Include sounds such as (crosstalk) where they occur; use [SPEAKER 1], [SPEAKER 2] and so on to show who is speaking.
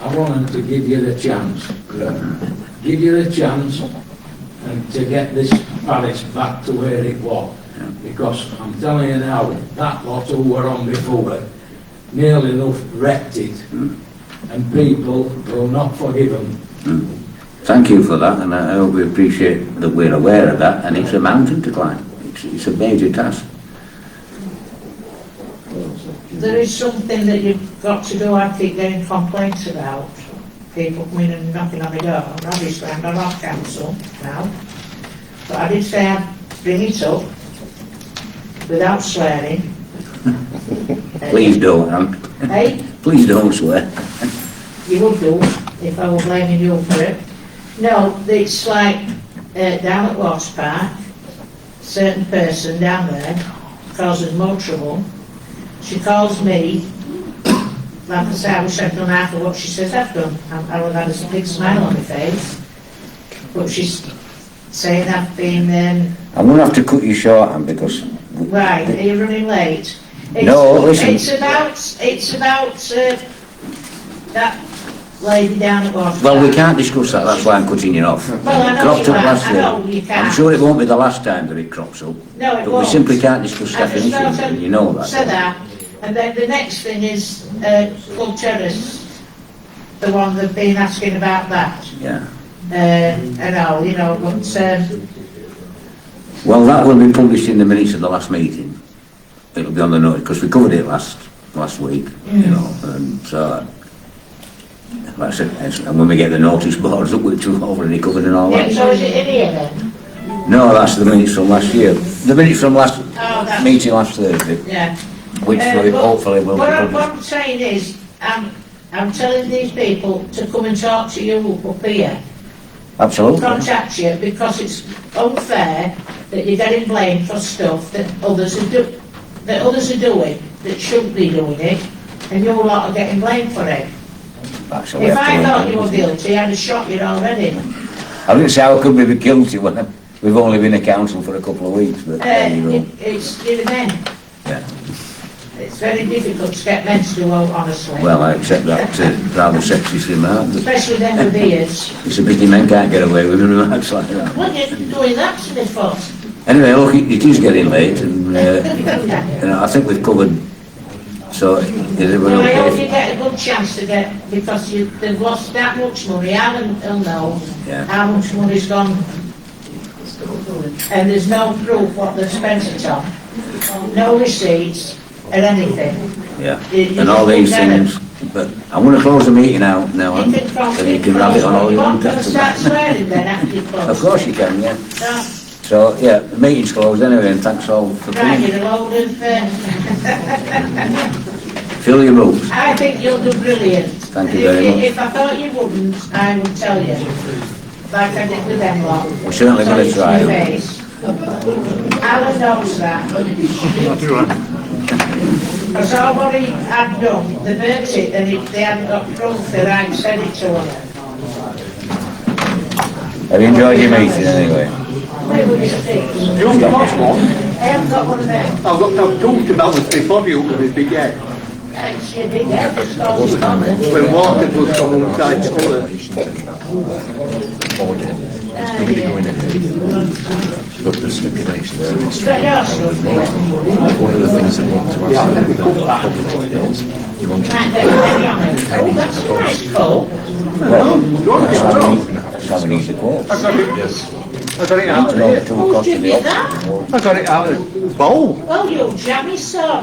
[SPEAKER 1] I wanted to give you the chance, Graham. Give you the chance and to get this palace back to where it was. Because I'm telling you now, that lot who were on before nearly enough wrecked it. And people will not forgive them.
[SPEAKER 2] Thank you for that, and I hope we appreciate that we're aware of that, and it's a mountain to climb. It's, it's a major task.
[SPEAKER 3] There is something that you've got to do, I keep getting complaints about, people coming and knocking on the door, and obviously I'm not on council now, but I did say I'd bring it up without swearing.
[SPEAKER 2] Please don't, Ann.
[SPEAKER 3] Hey,
[SPEAKER 2] (laughs) Please don't swear.
[SPEAKER 3] you would do if I were blaming you for it. No, it's like uh, down at Watts Park, certain person down there causes more trouble. She calls me, like I say, I wish I'd done half of what she says I've done. I I would have had a big smile on my face. But she's saying I've been, um,
[SPEAKER 2] I'm going to have to cut you short, Ann, because... we-
[SPEAKER 3] right, are you running late? It's-
[SPEAKER 2] No, listen.
[SPEAKER 3] It's about, it's about uh, that lady down at Watts Park.
[SPEAKER 2] Well, we can't discuss that, that's why I'm cutting you off.
[SPEAKER 3] Well, I know
[SPEAKER 2] It cropped
[SPEAKER 3] you
[SPEAKER 2] up
[SPEAKER 3] can't.
[SPEAKER 2] last
[SPEAKER 3] I
[SPEAKER 2] year.
[SPEAKER 3] know you
[SPEAKER 2] I'm
[SPEAKER 3] can't.
[SPEAKER 2] sure it won't be the last time that it crops up,
[SPEAKER 3] No, it
[SPEAKER 2] but we
[SPEAKER 3] won't.
[SPEAKER 2] simply can't discuss
[SPEAKER 3] And it's
[SPEAKER 2] definitions,
[SPEAKER 3] not a-
[SPEAKER 2] and you know
[SPEAKER 3] So
[SPEAKER 2] that.
[SPEAKER 3] that, and then the next thing is, uh, Club Terrace, the one they've been asking about that,
[SPEAKER 2] Yeah.
[SPEAKER 3] uh, and all, you know, but, um,
[SPEAKER 2] Well, that will be published in the minutes of the last meeting. It'll be on the notice, because we covered it last, last week, you
[SPEAKER 3] Mm.
[SPEAKER 2] know, and uh, so... That's it, It's- and when we get the notice boards up, which we've already covered and all
[SPEAKER 3] yeah,
[SPEAKER 2] that.
[SPEAKER 3] so is it in here then?
[SPEAKER 2] No, that's the minutes from last year. The minutes from last,
[SPEAKER 3] Oh, that's-
[SPEAKER 2] meeting last Thursday,
[SPEAKER 3] Yeah.
[SPEAKER 2] which
[SPEAKER 3] Uh,
[SPEAKER 2] we
[SPEAKER 3] but
[SPEAKER 2] hopefully will be
[SPEAKER 3] What I'm,
[SPEAKER 2] published.
[SPEAKER 3] what I'm saying is, I'm, I'm telling these people to come and talk to you up here,
[SPEAKER 2] Absolutely.
[SPEAKER 3] contact you, because it's unfair that you're getting blamed for stuff that others are do, that others are doing, that shouldn't be doing it, and you lot are getting blamed for it.
[SPEAKER 2] That's what we
[SPEAKER 3] If
[SPEAKER 2] have
[SPEAKER 3] I
[SPEAKER 2] to
[SPEAKER 3] thought
[SPEAKER 2] work
[SPEAKER 3] you were
[SPEAKER 2] with.
[SPEAKER 3] guilty, I'd have shot you already.
[SPEAKER 2] I didn't say how could we be guilty when we've only been a council for a couple of weeks, but
[SPEAKER 3] Uh,
[SPEAKER 2] there you go.
[SPEAKER 3] it- It's, you know, men,
[SPEAKER 2] Yeah.
[SPEAKER 3] it's very difficult to get men to do all honestly.
[SPEAKER 2] Well, I accept that uh, rather sexist remark, but
[SPEAKER 3] Especially them with ears.
[SPEAKER 2] it's a pity men can't get away with (laughs) remarks like that.
[SPEAKER 3] What are you doing that to me for?
[SPEAKER 2] Anyway, look, it it is getting late and, uh, you know, I think we've covered, so is everyone
[SPEAKER 3] Well, I hope you
[SPEAKER 2] okay?
[SPEAKER 3] get a good chance to get, because you, they've lost that much money, Alan will know
[SPEAKER 2] Yeah.
[SPEAKER 3] how much money's gone. And there's no proof what they've spent it on, no receipts or anything.
[SPEAKER 2] Yeah,
[SPEAKER 3] You- you
[SPEAKER 2] and all
[SPEAKER 3] can
[SPEAKER 2] these
[SPEAKER 3] get it.
[SPEAKER 2] things, but I'm gonna close the meeting out now,
[SPEAKER 3] You
[SPEAKER 2] and
[SPEAKER 3] can come,
[SPEAKER 2] and you can have it on all
[SPEAKER 3] you
[SPEAKER 2] your
[SPEAKER 3] want
[SPEAKER 2] own.
[SPEAKER 3] to start swearing then after you close.
[SPEAKER 2] Of course you can, yeah.
[SPEAKER 3] No,
[SPEAKER 2] So, yeah, the meeting's closed anyway, and thanks all for
[SPEAKER 3] Right,
[SPEAKER 2] coming.
[SPEAKER 3] you're a load of, uh,
[SPEAKER 2] Fill your boots.
[SPEAKER 3] I think you'll do brilliant.
[SPEAKER 2] Thank you very
[SPEAKER 3] If-
[SPEAKER 2] much.
[SPEAKER 3] If I thought you wouldn't, I would tell you, like I did with them lot.
[SPEAKER 2] We're certainly
[SPEAKER 3] Tell
[SPEAKER 2] gonna
[SPEAKER 3] you to
[SPEAKER 2] try.
[SPEAKER 3] your face. Alan knows that. Because I worry I'd done, they burnt it, and if they hadn't got proof that I'd said it to them.
[SPEAKER 2] Have you enjoyed your meeting anyway?
[SPEAKER 3] Where would you think?
[SPEAKER 4] You haven't got one.
[SPEAKER 3] I haven't got one of them.
[SPEAKER 4] I've got I've talked about this before you with the yeah.
[SPEAKER 3] Actually, they get the stones on it.
[SPEAKER 4] When water was from one side to the other.
[SPEAKER 5] But the stipulation is
[SPEAKER 3] But no, it's-
[SPEAKER 5] one of the things that wants to
[SPEAKER 4] Yeah, I
[SPEAKER 5] happen
[SPEAKER 4] think we
[SPEAKER 5] with
[SPEAKER 4] covered that.
[SPEAKER 5] the you want to
[SPEAKER 3] Right, there, oh, that's a nice coat.
[SPEAKER 4] That's
[SPEAKER 2] That's how we need- that's how we need the quotes.
[SPEAKER 4] I got it. I got it out
[SPEAKER 2] That's
[SPEAKER 4] of
[SPEAKER 2] all the
[SPEAKER 4] here.
[SPEAKER 2] tool cost of
[SPEAKER 3] Give
[SPEAKER 2] the
[SPEAKER 3] me
[SPEAKER 2] office.
[SPEAKER 3] that.
[SPEAKER 4] I got it out of the bowl.
[SPEAKER 3] Well, you jammy sod.